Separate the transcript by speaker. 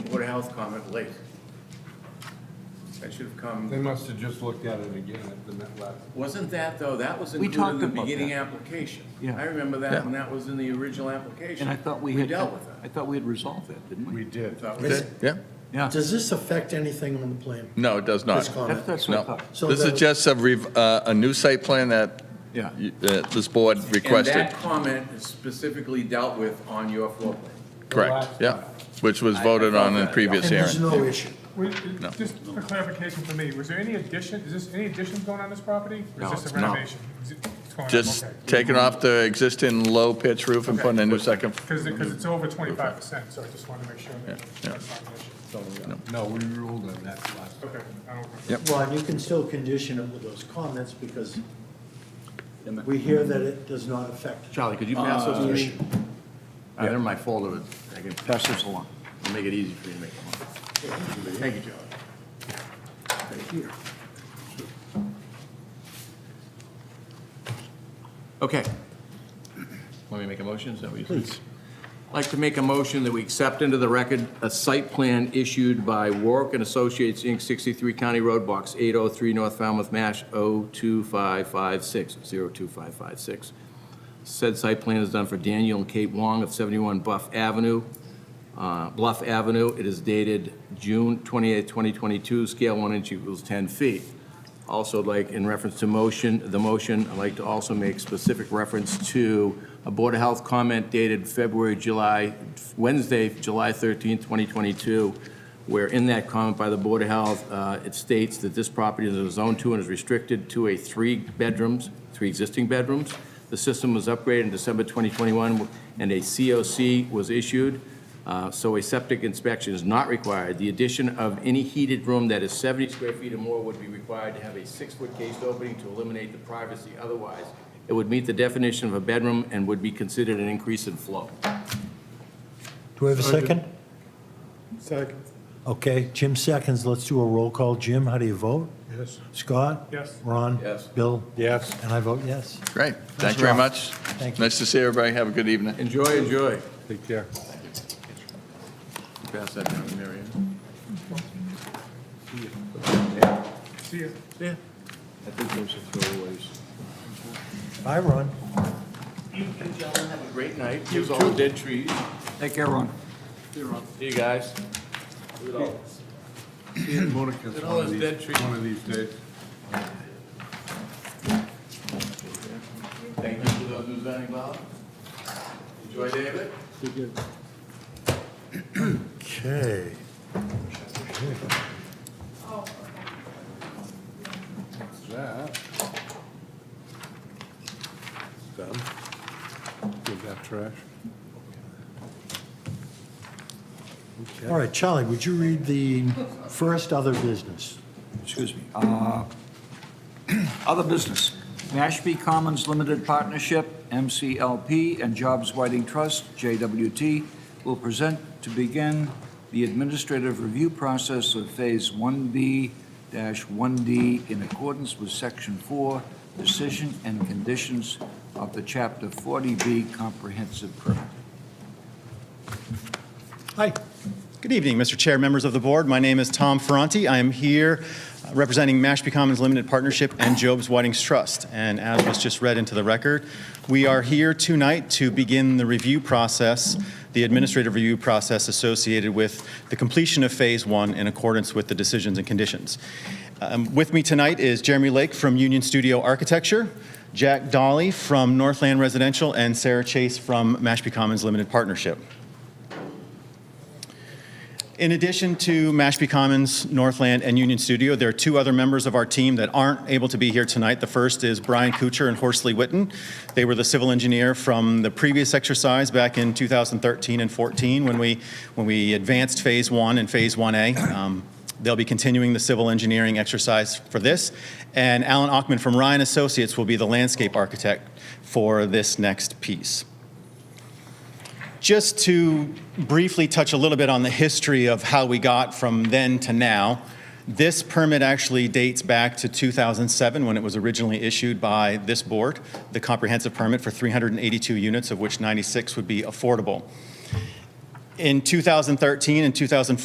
Speaker 1: health comment late. I should have
Speaker 2: They
Speaker 1: come,
Speaker 2: must have just looked at it again at the net last.
Speaker 1: wasn't that though, that was
Speaker 3: We
Speaker 1: included in
Speaker 3: talked
Speaker 1: the
Speaker 3: about
Speaker 1: beginning
Speaker 3: that.
Speaker 1: application?
Speaker 3: Yeah.
Speaker 1: I remember that
Speaker 3: Yeah.
Speaker 1: when that was in the original application.
Speaker 3: And I thought we had.
Speaker 1: dealt with
Speaker 3: I
Speaker 1: that.
Speaker 3: thought we had resolved that, didn't we?
Speaker 1: I
Speaker 2: did.
Speaker 1: thought we
Speaker 4: This-
Speaker 1: did.
Speaker 4: Yeah,
Speaker 3: Yeah, that's,
Speaker 5: Does this affect anything on the plan?
Speaker 4: no, it does not.
Speaker 5: This comment?
Speaker 3: that's what I
Speaker 4: No,
Speaker 3: thought.
Speaker 5: So
Speaker 4: this is
Speaker 5: the-
Speaker 4: just a, rev- uh, a new site plan that
Speaker 3: Yeah.
Speaker 4: you- that this board
Speaker 1: And
Speaker 4: requested.
Speaker 1: that comment is specifically dealt with on your floor plan.
Speaker 4: Correct, yeah, which was
Speaker 1: I- I
Speaker 4: voted
Speaker 1: thought
Speaker 4: on in
Speaker 1: that.
Speaker 4: previous
Speaker 5: And there's
Speaker 4: hearing.
Speaker 5: no issue.
Speaker 6: Wait, Just for clarification for me, was there any addition, is this, any additions going on this property? Or
Speaker 3: No,
Speaker 6: is this a
Speaker 3: it's not.
Speaker 6: renovation? Is it- it's going on,
Speaker 4: Just
Speaker 6: okay.
Speaker 4: taking off the existing low pitch roof and putting a new second,
Speaker 6: Because, because it's over twenty-five percent, so I just wanted to make sure. that
Speaker 4: yeah.
Speaker 6: that's not an issue.
Speaker 2: No, we ruled on that last.
Speaker 6: Okay, I don't.
Speaker 4: Yep.
Speaker 5: Well, and you can still condition it with those comments because we hear that it does not affect. Uh,
Speaker 7: Charlie, could you pass those
Speaker 5: the
Speaker 7: to me?
Speaker 5: issue.
Speaker 7: Uh, They're my folder, but I can pass those along. I'll make it easy for you to make them.
Speaker 1: Thank you, John.
Speaker 7: Okay. Want me to make a motion? Is that what you said? Please. I'd like to make a motion that we accept into the record a site plan issued by Warwick and Associates, Inc., 63 County Road, Box 803, North Falmouth, oh Mash. 02556, 02556. Said site plan is done for Daniel and Kate Wong of 71 Buff Avenue, uh, Bluff Avenue. It is dated June 28, 2022, scale 1 inch equals 10 feet. Also, like, in reference to motion, the motion, I'd like to also make specific reference to a Board of Health comment dated February, July, Wednesday, July 13, 2022, where in that comment by the Board of Health, uh, it states that this property is in Zone 2 and is restricted to a three bedrooms, three existing bedrooms. The system was upgraded in December 2021, and a COC was issued. Uh, so a septic inspection is not required. The addition of any heated room that is 70 square feet or more would be required to have a six-foot cased opening to eliminate the privacy. Otherwise, it would meet the definition of a bedroom and would be considered an increase in flow.
Speaker 5: Do we have a second? Second. Okay, Jim seconds. Let's do a roll call. Jim, how do you vote?
Speaker 2: Yes.
Speaker 5: Scott?
Speaker 6: Yes.
Speaker 5: Ron?
Speaker 7: Yes.
Speaker 5: Bill?
Speaker 2: Yes.
Speaker 5: And I vote yes.
Speaker 4: great, thank you very
Speaker 5: Ralph.
Speaker 4: much.
Speaker 5: Thank you.
Speaker 4: Nice to see everybody, have a good evening.
Speaker 7: Enjoy, enjoy.
Speaker 2: Take care.
Speaker 4: Pass that down to Mary Ann.
Speaker 6: See ya.
Speaker 7: I think those are throwaways.
Speaker 5: Bye, Ron.
Speaker 7: Have a great night. Here's all the dead trees.
Speaker 3: take care, Ron.
Speaker 7: See you guys.
Speaker 2: Ian Monica's
Speaker 7: Look at all
Speaker 2: one of
Speaker 7: those dead
Speaker 2: these,
Speaker 7: trees.
Speaker 2: one of these days.
Speaker 7: Thank you for those who's done involved. Enjoy, David.
Speaker 5: Okay.
Speaker 2: That. Done. Give that trash.
Speaker 5: All right, Charlie, would you read the first other business?
Speaker 3: Excuse me. Uh, Other business, Mashpee Commons Limited Partnership, MCLP, and Jobs Whiting Trust, JWT, will present to begin the administrative review process of Phase 1B-1D in accordance with Section 4, Decision and Conditions of the Chapter 40B Comprehensive Permit.
Speaker 8: Hi. Good evening, Mr. Chair, members of the board. My name is Tom Ferranti. I am here uh, representing Mashpee Commons Limited Partnership and Job's Whiting's Trust. And as was just read into the record, we are here tonight to begin the review process, the administrative review process associated with the completion of Phase One in accordance with the decisions and conditions. Um, With me tonight is Jeremy Lake from Union Studio Architecture, Jack Dolly from Northland Residential, and Sarah Chase from Mashpee Commons Limited Partnership. In addition to Mashpee Commons, Northland, and Union Studio, there are two other members of our team that aren't able to be here tonight. The first is Brian Kuchar and Horsley Witten. They were the civil engineer from the previous exercise back in 2013 and 14 when we, when we advanced Phase 1 and Phase 1A. Um, They'll be continuing the civil engineering exercise for this. And Alan Ockman from Ryan Associates will be the landscape architect for this next piece. Just to briefly touch a little bit on the history of how we got from then to now, this permit actually dates back to 2007 when it was originally issued by this board, the comprehensive permit for 382 units, of which 96 would be affordable. In 2013 and 2014,